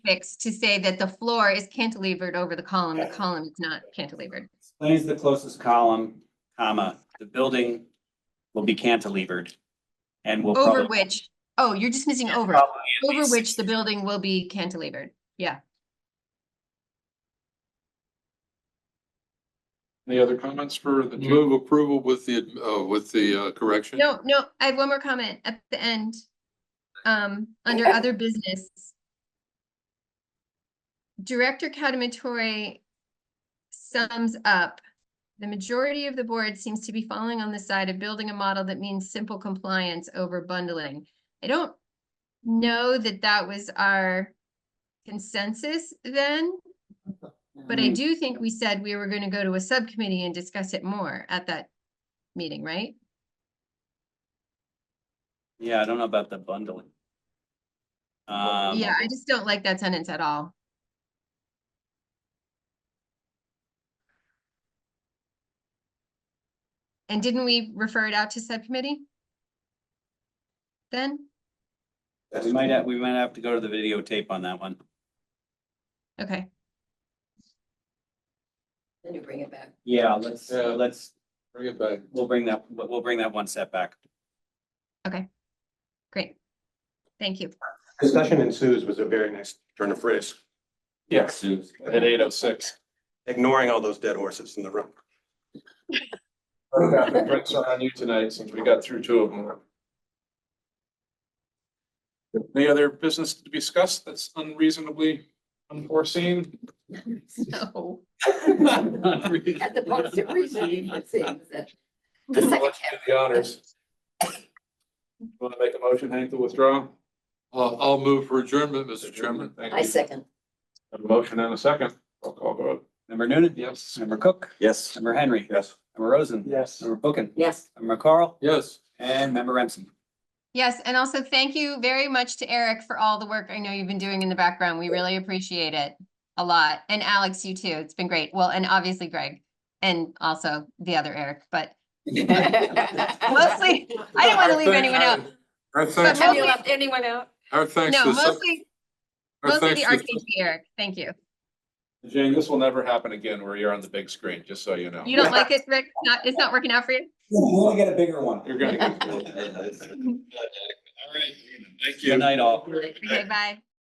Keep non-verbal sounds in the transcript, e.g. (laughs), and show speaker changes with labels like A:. A: fix to say that the floor is cantilevered over the column, the column is not cantilevered.
B: Explains the closest column, comma, the building will be cantilevered and will
A: Over
B: probably.
A: which, oh, you're just missing over,
B: probably at
A: over
B: least-
A: which the building will be cantilevered. Yeah,
C: Any other comments for the two?
D: Move approval with the, uh, with the uh, correction?
A: no, no, I have one more comment at the end. Um, under other business. Director Katamatory sums up. The majority of the board seems to be falling on the side of building a model that means simple compliance over bundling. I don't know that that was our consensus then. But
B: Mm.
A: I do think we said we were gonna go to a subcommittee and discuss it more at that meeting, right?
B: Yeah, I don't know about the bundling. Um,
A: Yeah, I just don't like that sentence at all. And didn't we refer it out to subcommittee? Then,
B: we might have, we might have to go to the videotape on that one.
A: okay,
E: Then you bring it back.
B: Yeah, let's,
D: Yeah.
B: let's,
D: Bring it back.
B: we'll bring that, we'll we'll bring that one step back.
A: great. Thank you.
F: Discussion ensues was a very nice turn of phrase,
C: Yes, at eight oh six.
F: ignoring all those dead horses in the room.
C: Brent's on you tonight since we got through two of them. Any other business to be discussed that's unreasonably unforeseen?
E: (laughs)
A: So,
E: At the
C: The
E: positive reason, it seems that the second
C: honors. Want to make a motion, Hank, to withdraw?
D: I'll, I'll move for adjournment, Mr. Chairman.
C: Thank
E: I
C: you.
E: second.
C: A motion and a second. Roll call vote.
B: Member Noonan?
C: Yes.
B: Member Cook?
F: Yes.
B: Member Henry?
F: Yes.
B: Member Rosen?
C: Yes.
B: Member Bookin?
E: (laughs) Yes.
B: Member Carl?
D: Yes.
B: And member Remsen.
A: yes, and also thank you very much to Eric for all the work I know you've been doing in the background. We really appreciate it a lot. And Alex, you too. It's been great. Well, and obviously Greg and also the other Eric, but mostly, I didn't want to leave anyone out.
D: Our
A: But
D: thanks,
E: Have you
A: mostly,
E: left anyone out?
D: our thanks.
A: no,
D: to sec-
A: mostly,
D: our
A: mostly
D: thanks
A: the
D: to-
A: RKG Eric. Thank you.
C: Jane, this will never happen again where you're on the big screen, just so you know.
A: You don't like it, Rick? It's Not, it's not working out for you?
B: We'll get a bigger one.
C: You're gonna get.
B: Good night, all.
E: Like,
A: Okay, bye.